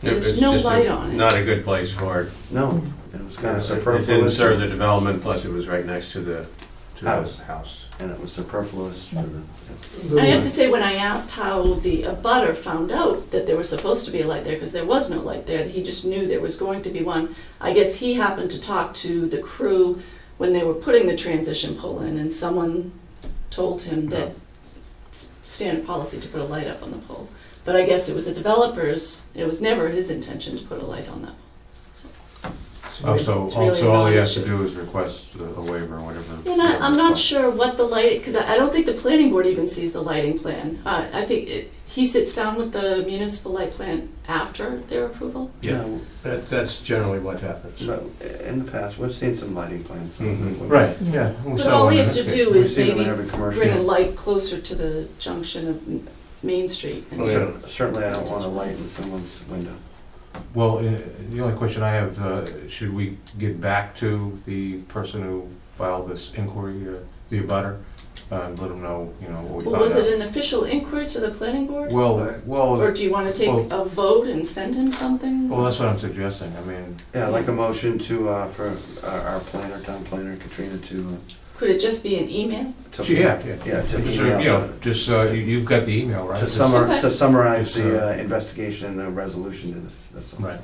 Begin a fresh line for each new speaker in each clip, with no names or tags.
There's
it's
no
just a-
light on it.
Not a good place for it.
No, it was kind of
It didn't
superfluous,
serve the development, plus it was right next to the, to
House.
the house.
and it was superfluous for the,
I have to say, when I asked how the abutter found out that there was supposed to be a light there, because there was no light there, he just knew there was going to be one. I guess he happened to talk to the crew when they were putting the transition pole in, and someone told him that
Oh.
it's standard policy to put a light up on the pole. But I guess it was the developers, it was never his intention to put a light on that.
Also, Oh,
It's really
also, all he has to
not-
do is request a a waiver or whatever.
And I, I'm
whatever.
not sure what the light, because I I don't think the planning board even sees the lighting plan. Uh, I think it- he sits down with the municipal light plan after their approval.
Yeah.
no,
That, that's generally what happens.
no, in the past, we've seen some lighting plans.
Mhm.
Mm-hmm. Right, yeah. we'll
But
sell
all he
one
has to
in that
do
case.
We've
is
seen them in
maybe
every commercial.
bring a light closer to the junction of M- Main Street. and
Oh, yeah.
Cer- Certainly, I don't want a light in someone's window.
Well, uh, the only question I have, uh, should we get back to the person who filed this inquiry, uh, the abutter? uh, Let them know, you know, what we
Well, was
found
it
out.
an official inquiry to the planning board?
Well,
Or- Or
well,
do you want to take
well-
a vote and send him something?
well, that's what I'm suggesting, I mean,
Yeah, I'd like a motion to, uh, for our our planner, town planner, Katrina, to. uh,
Could it just be an email?
to-
yeah, yeah.
Yeah, to
Just, sort of, you know,
email,
just, uh, you- you've got the email,
to-
right?
to
Just-
summar, to summarize the uh,
It's,
investigation and the resolution to this, that's all.
Right.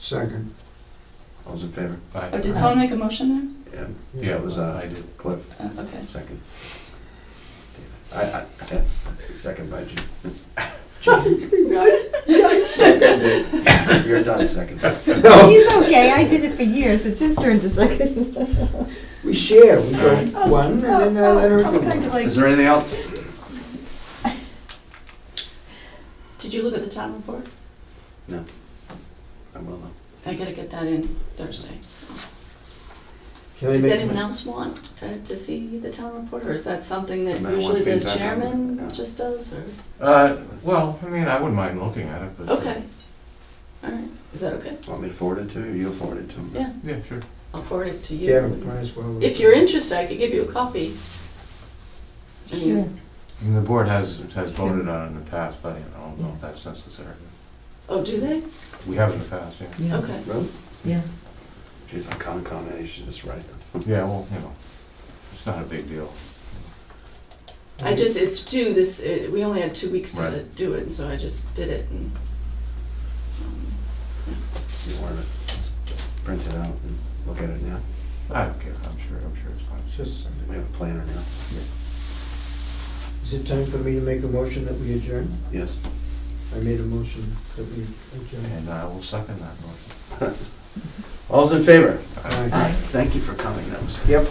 Second.
All those in favor?
Or
I-
did someone make a motion
Yeah,
Yeah,
that was, uh,
I did.
Cliff,
there? Uh, Okay.
second. I, I, yeah, second by Jim. You're done second.
He's okay. I did it for years. It's his turn to second.
We share, we go one, and then I let her
I'm kind
go.
of like,
Is there anything else?
Did you look at the town report?
I will,
I gotta get that in Thursday. so.
Can I
Does
make
anyone
my-
else want uh, to see the town report, or is that something that
No, I want
usually the
feedback on it, yeah.
chairman just does, or?
Uh, Well, I mean, I wouldn't mind looking at it, but. uh,
Okay. All right, is that okay?
want me to forward it to you, or you'll forward it to him?
Yeah,
Yeah, sure.
I'll forward it to
Yeah,
you.
might as well.
If you're interested, I could give you a copy. I mean,
sure.
I mean, the board has, has voted on it in the past, but I don't know if that's necessary.
Oh, do they?
We have in the past, yeah.
Yeah.
Okay.
Really?
Yeah.
Geez, I'm kind of combination, just right.
Yeah, well, you know, it's not a big deal.
I just, it's due this, it- we only had two weeks to
Right.
do it, and so I just did it. and, um,
You want to print it out and look at it now?
I don't care, I'm sure, I'm sure it's fine.
It's just Sunday.
We have a planner now.
Is it time for me to make a motion that we adjourn?
Yes.
I made a motion that we adjourn.
And uh, I will second that motion.
All's in favor?
Aye.
Thank you for coming, that was.
Yep.